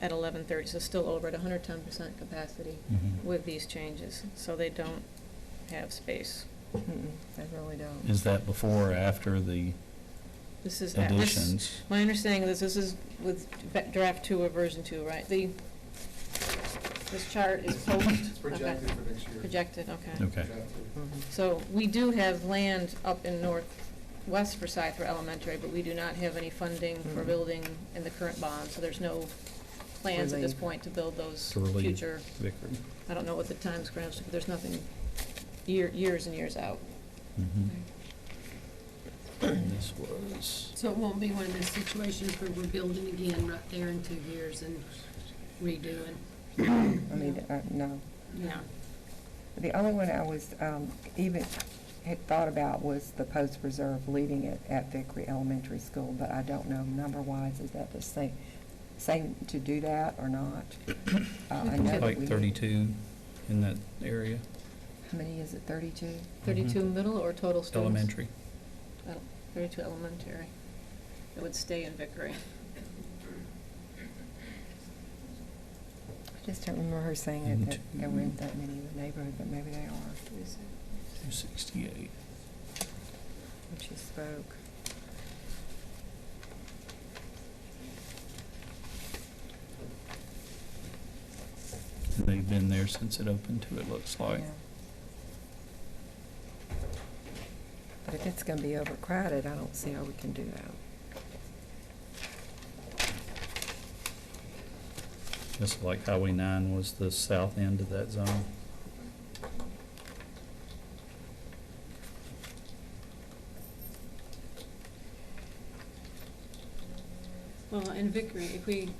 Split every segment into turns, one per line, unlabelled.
at eleven thirty, so still over at hundred ten percent capacity
Mhm.
with these changes, so they don't have space.
Mm-mm, They really don't.
Is that before or after the
This is, at- this,
additions?
my understanding is this is with va- draft two or version two, right? The, this chart is post.
It's projected
okay.
for next year.
Projected, okay.
Okay.
Projected.
Mhm.
So we do have land up in northwest Forsyth for elementary, but we do not have any funding for
Mm.
building in the current bond, so there's no plans at this
Relief.
point to build those
To relieve.
future,
Vickery.
I don't know what the times grants, but there's nothing year, years and years out.
Mm-hmm.
Mhm. This was,
So it won't be one of those situations where we're building again right there in two years and redoing?
I mean, uh, no.
No.
The only one I was, um, even had thought about was the post reserve, leaving it at Vickery Elementary School, but I don't know number-wise, is that the same, same to do that or not? Uh, I know that
like
we-
32 in that area,
How many is it, thirty-two?
Thirty-two middle or total students?
elementary.
Oh, Thirty-two elementary. It would stay in Vickery.
I just don't remember her saying it, that there weren't that many in the neighborhood, but maybe they are.
268.
when she spoke.
They've been there since it opened too, it looks like.
Yeah. But if it's gonna be overcrowded, I don't see how we can do that.
Just like Highway 9 was the south end of that zone.
Well, in Vickery, if we,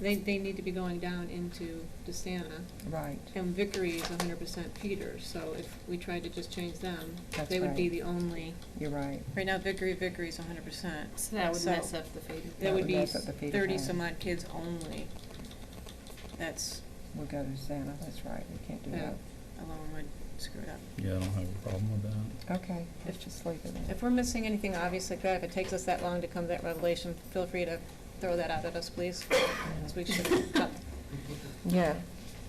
they, they need to be going down into DeSana,
Right.
and Vickery is hundred percent Peters, so if we tried to just change them,
That's
they would be
right.
the only,
You're right.
right now Vickery, Vickery is hundred percent.
So that would
So-
mess up the feeder.
That would be
mess up the feeder
thirty
plan.
some odd kids only. That's,
We'll go to Santa, that's right, we can't do
Yeah.
that.
alone would screw it up.
Yeah, I don't have a problem with that.
Okay, let's just leave it there.
If we're missing anything obvious like that, if it takes us that long to come to that revelation, feel free to throw that out at us, please, as we should cut
Yeah,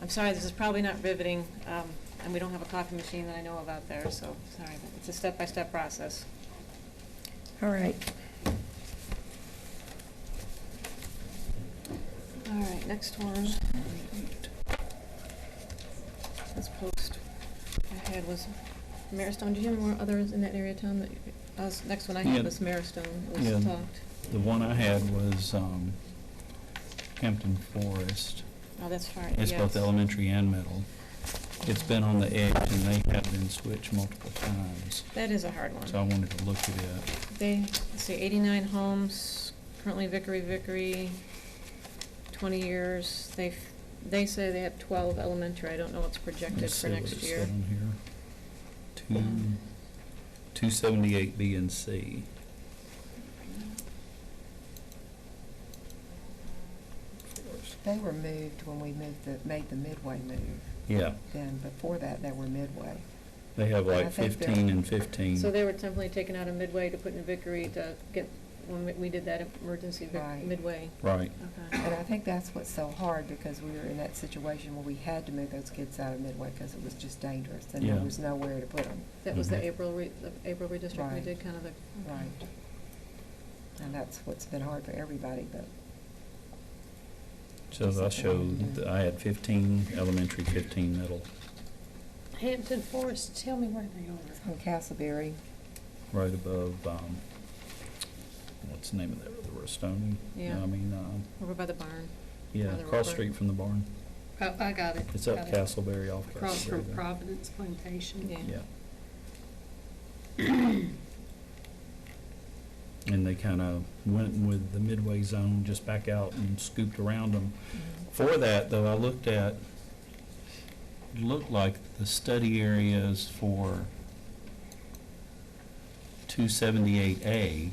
I'm sorry, this is probably not riveting, um, and we don't have a coffee machine that I know of out there, so, sorry, but it's a step-by-step process.
all right.
All right, next one. This post I had was Maristone, do you have more others in that area, Tom? that you- I was, next one I
Yeah.
had was Maristone, It
Yeah.
was talked.
The one I had was um, Hampton Forest.
Oh, that's far,
It's
yes.
both elementary and middle. It's been on the edge and they have been switched multiple times.
That is a hard one.
So I wanted to look at it.
They, let's see, eighty-nine homes, currently Vickery, Vickery, twenty years. They, have they say they have twelve elementary. I don't know what's projected
Let's
for
see what
next
it's
year.
down here. Two, two seventy-eight B and C.
They were moved when we moved the, made the Midway move.
Yeah,
Then before that, they were Midway.
they have
I
like
think they're-
fifteen and fifteen.
So they were temporarily taken out of Midway to put in Vickery to get, when we- we did that emergency Vic-
Right.
Midway.
Right,
Okay.
And I think that's what's so hard because we were in that situation where we had to move those kids out of Midway because it was just dangerous and there
Yeah.
was nowhere to put them.
That was the
Mhm.
April, re- the April redistricting we
Right.
did, kind of the.
Right. And that's what's been hard for everybody, but
so I showed, that I had fifteen elementary, fifteen middle,
Hampton Forest, tell me where they are.
on Castleberry,
right above, um, what's the name of that, the Rustoni?
Yeah.
I mean, um,
Over by the barn.
yeah,
By the
cross
river.
street from the barn.
Oh, I got it.
It's up
got it.
Castleberry off Castleberry.
Across from
there.
Providence Plantation.
Yeah.
Yeah. And they kind of went with the midway zone, just back out and scooped around them.
Mm-hmm.
For that, though, I looked at, looked like the study areas for 278A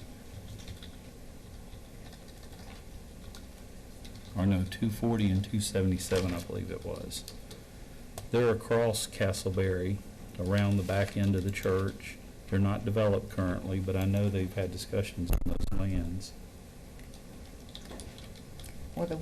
or no, 240 and 277, I believe it was. They're across Castleberry, around the back end of the church. They're not developed currently, but I know they've had discussions on those lands.
well, the